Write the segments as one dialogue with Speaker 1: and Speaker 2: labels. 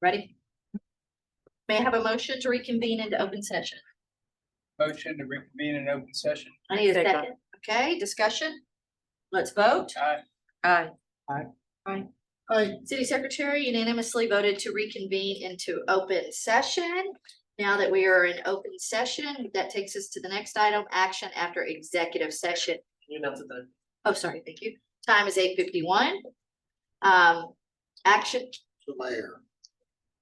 Speaker 1: Ready? May I have a motion to reconvene into open session?
Speaker 2: Motion to reconvene in open session.
Speaker 1: I need a
Speaker 3: Second.
Speaker 1: second. Okay, discussion? Let's vote.
Speaker 2: Aye.
Speaker 1: Aye.
Speaker 2: Aye.
Speaker 1: Aye. City Secretary unanimously voted to reconvene into open session. Now that we are in open session, that takes us to the next item, action after executive session.
Speaker 3: You know, to the,
Speaker 1: Oh, sorry, thank you. Time is eight fifty-one. Um, action,
Speaker 4: the mayor.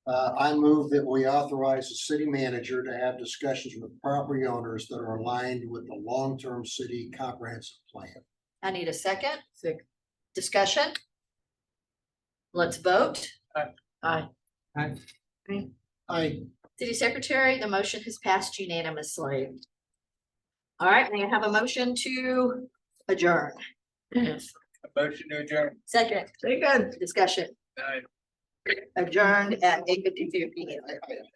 Speaker 4: Uh, I move that we authorize the city manager to have discussions with property owners that are aligned with the long-term city comprehensive plan.
Speaker 1: I need a second. Discussion? Let's vote.
Speaker 2: Aye.
Speaker 1: Aye.
Speaker 4: I,
Speaker 1: City Secretary, the motion has passed unanimously. All right, may I have a motion to adjourn?
Speaker 2: A motion to adjourn.
Speaker 1: Second.
Speaker 3: very good.
Speaker 1: Discussion
Speaker 2: Aye.
Speaker 1: adjourned at eight fifty-two P M.
Speaker 4: I, I